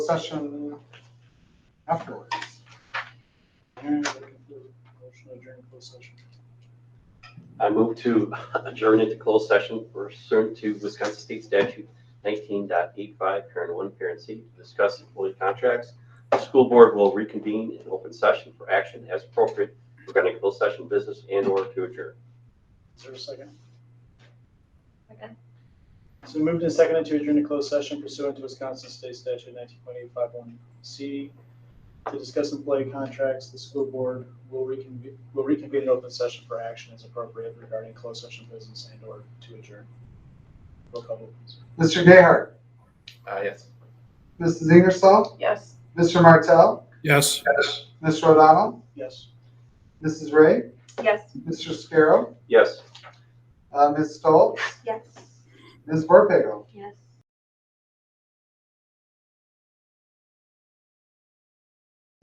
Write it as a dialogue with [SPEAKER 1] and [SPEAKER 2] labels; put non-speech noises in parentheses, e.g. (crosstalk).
[SPEAKER 1] session afterwards.
[SPEAKER 2] And looking for a motion to adjourn closed session.
[SPEAKER 3] I move to (laughs) adjourn into closed session pursuant to Wisconsin State Statute 19.85, parent one, parent C, to discuss employee contracts. The school board will reconvene in open session for action as appropriate regarding closed session business and or to adjourn.
[SPEAKER 2] Is there a second?
[SPEAKER 4] Second.
[SPEAKER 2] So we moved and seconded to adjourn to closed session pursuant to Wisconsin State Statute nineteen point eight five one C. To discuss employee contracts, the school board will reconvene, will reconvene in open session for action as appropriate regarding closed session business and or to adjourn. Roll call vote, please.
[SPEAKER 1] Mr. Gayheart,
[SPEAKER 3] Uh, yes.
[SPEAKER 1] Mrs. Ingersoll,
[SPEAKER 4] Yes.
[SPEAKER 1] Mr. Martell,
[SPEAKER 5] Yes.
[SPEAKER 1] Mr. O'Donnell,
[SPEAKER 2] Yes.
[SPEAKER 1] Mrs. Ray,
[SPEAKER 4] Yes.
[SPEAKER 1] Mr. Scarrow,
[SPEAKER 3] Yes.
[SPEAKER 1] uh, Ms. Stoltz,
[SPEAKER 4] Yes.
[SPEAKER 1] Ms. Borpego.
[SPEAKER 4] Yes.